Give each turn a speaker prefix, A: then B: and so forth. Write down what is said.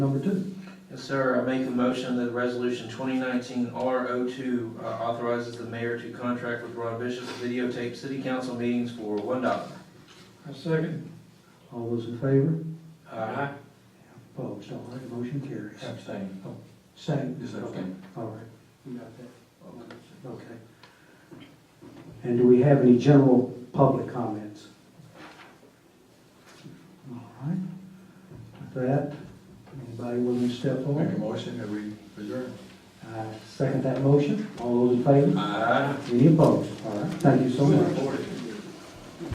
A: Number two,
B: Yes, sir. I make a motion that resolution 2019 R02 uh, authorizes the mayor to contract with Ron Bishop to videotape city council meetings for $1. dollar.
C: I second.
A: all those in favor?
B: Aye.
A: Opposed, all right, motion carries.
D: Abstain.
A: Same?
D: Is that
A: Okay,
D: okay?
A: all right, you got that, okay. And do we have any general public comments? All right, with that, anybody willing to step
D: Make
A: forward?
D: a motion that we adjourn.
A: I second that motion, all those in favor?
B: Aye.
A: Any opposed? All right, thank you so much.
B: Forward.